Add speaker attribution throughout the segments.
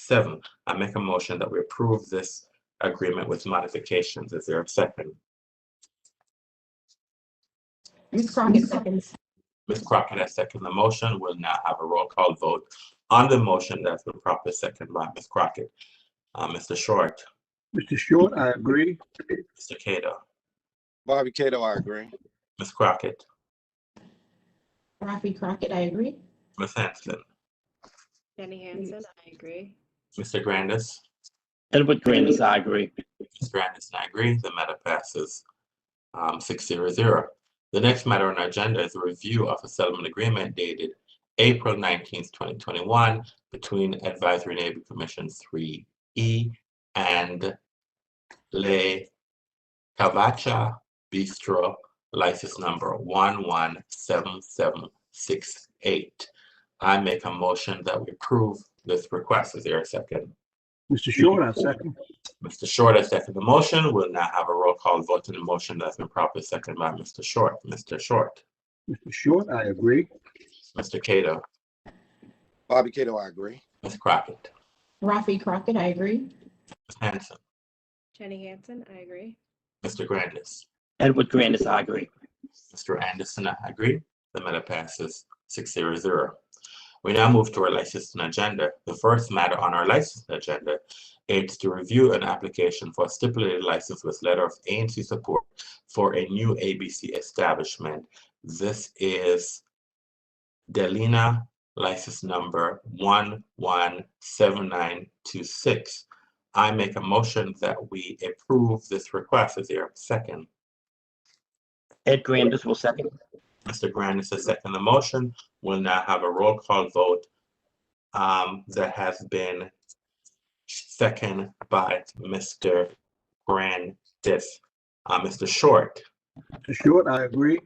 Speaker 1: seven, I make a motion that we approve this agreement with modifications. Is there a second?
Speaker 2: Ms. Crockett seconds.
Speaker 1: Ms. Crockett has seconded the motion. We'll now have a roll call vote on the motion that's been properly seconded by Ms. Crockett. Uh, Mr. Short,
Speaker 3: Mr. Short, I agree.
Speaker 1: Mr. Kato,
Speaker 4: Bobby Cato, I agree.
Speaker 1: Ms. Crockett,
Speaker 2: Rafi Crockett, I agree.
Speaker 1: Ms. Hanson,
Speaker 5: Jenny Hansen, I agree.
Speaker 1: Mr. Grandis.
Speaker 6: Edward Grandis, I agree.
Speaker 1: Ms. Grandis, and I agree. The matter passes um, six zero zero. The next matter on our agenda is a review of a settlement agreement dated April nineteenth, twenty twenty-one between Advisory Neighborhood Commission three E and Le Cavacha Bistro, license number one one seven seven six eight. I make a motion that we approve this request. Is there a second?
Speaker 3: Mr. Short, I second.
Speaker 1: Mr. Short has seconded the motion. We'll now have a roll call vote on the motion that's been properly seconded by Mr. Short. Mr. Short,
Speaker 3: Mr. Short, I agree.
Speaker 1: Mr. Cato,
Speaker 4: Bobby Cato, I agree.
Speaker 1: Ms. Crockett,
Speaker 2: Rafi Crockett, I agree.
Speaker 1: Ms. Hanson,
Speaker 5: Jenny Hansen, I agree.
Speaker 1: Mr. Grandis,
Speaker 6: Edward Grandis, I agree.
Speaker 1: Mr. Anderson, I agree. The matter passes six zero zero. We now move to our licensing agenda. The first matter on our licensing agenda is to review an application for a stipulated license with letter of ANC support for a new ABC establishment. This is Delina license number one one seven nine two six. I make a motion that we approve this request. Is there a second?
Speaker 6: Ed Grandis will second.
Speaker 1: Mr. Grandis has seconded the motion. We'll now have a roll call vote um, that has been seconded by Mr. Grandis. Uh, Mr. Short,
Speaker 3: Mr. Short, I agree.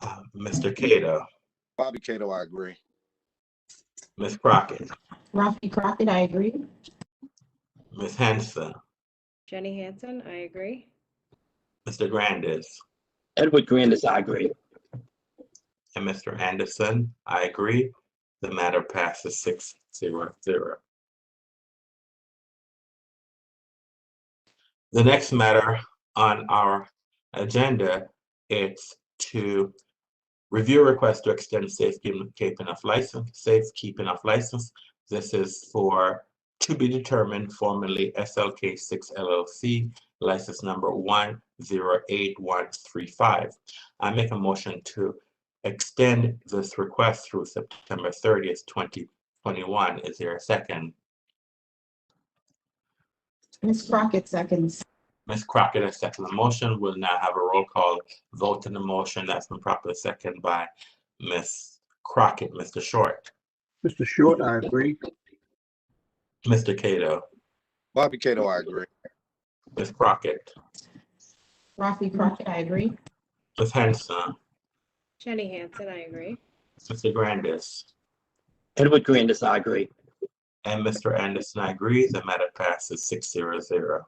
Speaker 1: uh, Mr. Kato,
Speaker 4: Bobby Cato, I agree.
Speaker 1: Ms. Crockett,
Speaker 2: Rafi Crockett, I agree.
Speaker 1: Ms. Hanson,
Speaker 5: Jenny Hansen, I agree.
Speaker 1: Mr. Grandis,
Speaker 6: Edward Grandis, I agree.
Speaker 1: and Mr. Anderson. I agree. The matter passes six zero zero. The next matter on our agenda is to review request to extend safekeeping of license, safekeeping of license. This is for to be determined formerly SLK six LLC, license number one zero eight one three five. I make a motion to extend this request through September thirtieth, twenty twenty-one. Is there a second?
Speaker 2: Ms. Crockett seconds.
Speaker 1: Ms. Crockett has seconded the motion. We'll now have a roll call vote on the motion that's been properly seconded by Ms. Crockett, Mr. Short,
Speaker 3: Mr. Short, I agree.
Speaker 1: Mr. Cato,
Speaker 4: Bobby Cato, I agree.
Speaker 1: Ms. Crockett,
Speaker 2: Rafi Crockett, I agree.
Speaker 1: Ms. Hanson,
Speaker 5: Jenny Hansen, I agree.
Speaker 1: Mr. Grandis,
Speaker 6: Edward Grandis, I agree.
Speaker 1: and Mr. Anderson. I agree. The matter passes six zero zero.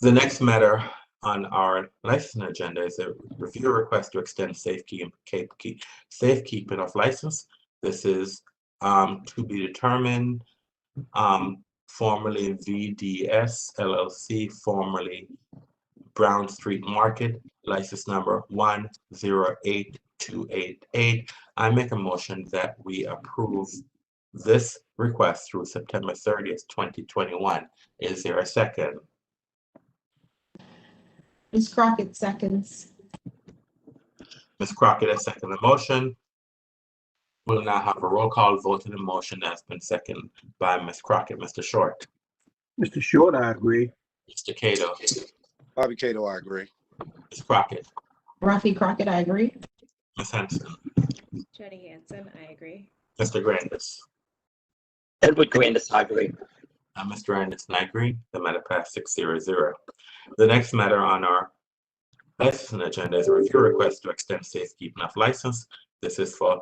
Speaker 1: The next matter on our license agenda is a review request to extend safekeeping, safekeeping of license. This is um, to be determined, um, formerly VDS LLC, formerly Brown Street Market, license number one zero eight two eight eight. I make a motion that we approve this request through September thirtieth, twenty twenty-one. Is there a second?
Speaker 2: Ms. Crockett seconds.
Speaker 1: Ms. Crockett has seconded the motion. We'll now have a roll call vote on the motion that's been seconded by Ms. Crockett. Mr. Short,
Speaker 3: Mr. Short, I agree.
Speaker 1: Mr. Cato,
Speaker 4: Bobby Cato, I agree.
Speaker 1: Ms. Crockett,
Speaker 2: Rafi Crockett, I agree.
Speaker 1: Ms. Henson,
Speaker 5: Jenny Hansen, I agree.
Speaker 1: Mr. Grandis.
Speaker 6: Edward Grandis, I agree.
Speaker 1: Uh, Mr. Anderson, I agree. The matter passed six zero zero. The next matter on our licensing agenda is a review request to extend safekeeping of license. This is for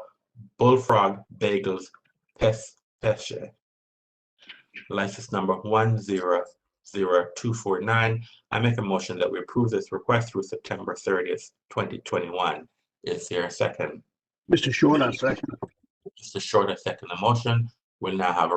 Speaker 1: Bullfrog Bagels Pes Pesce. License number one zero zero two four nine. I make a motion that we approve this request through September thirtieth, twenty twenty-one. Is there a second?
Speaker 3: Mr. Short, I second.
Speaker 1: Mr. Short, I second the motion. We'll now have a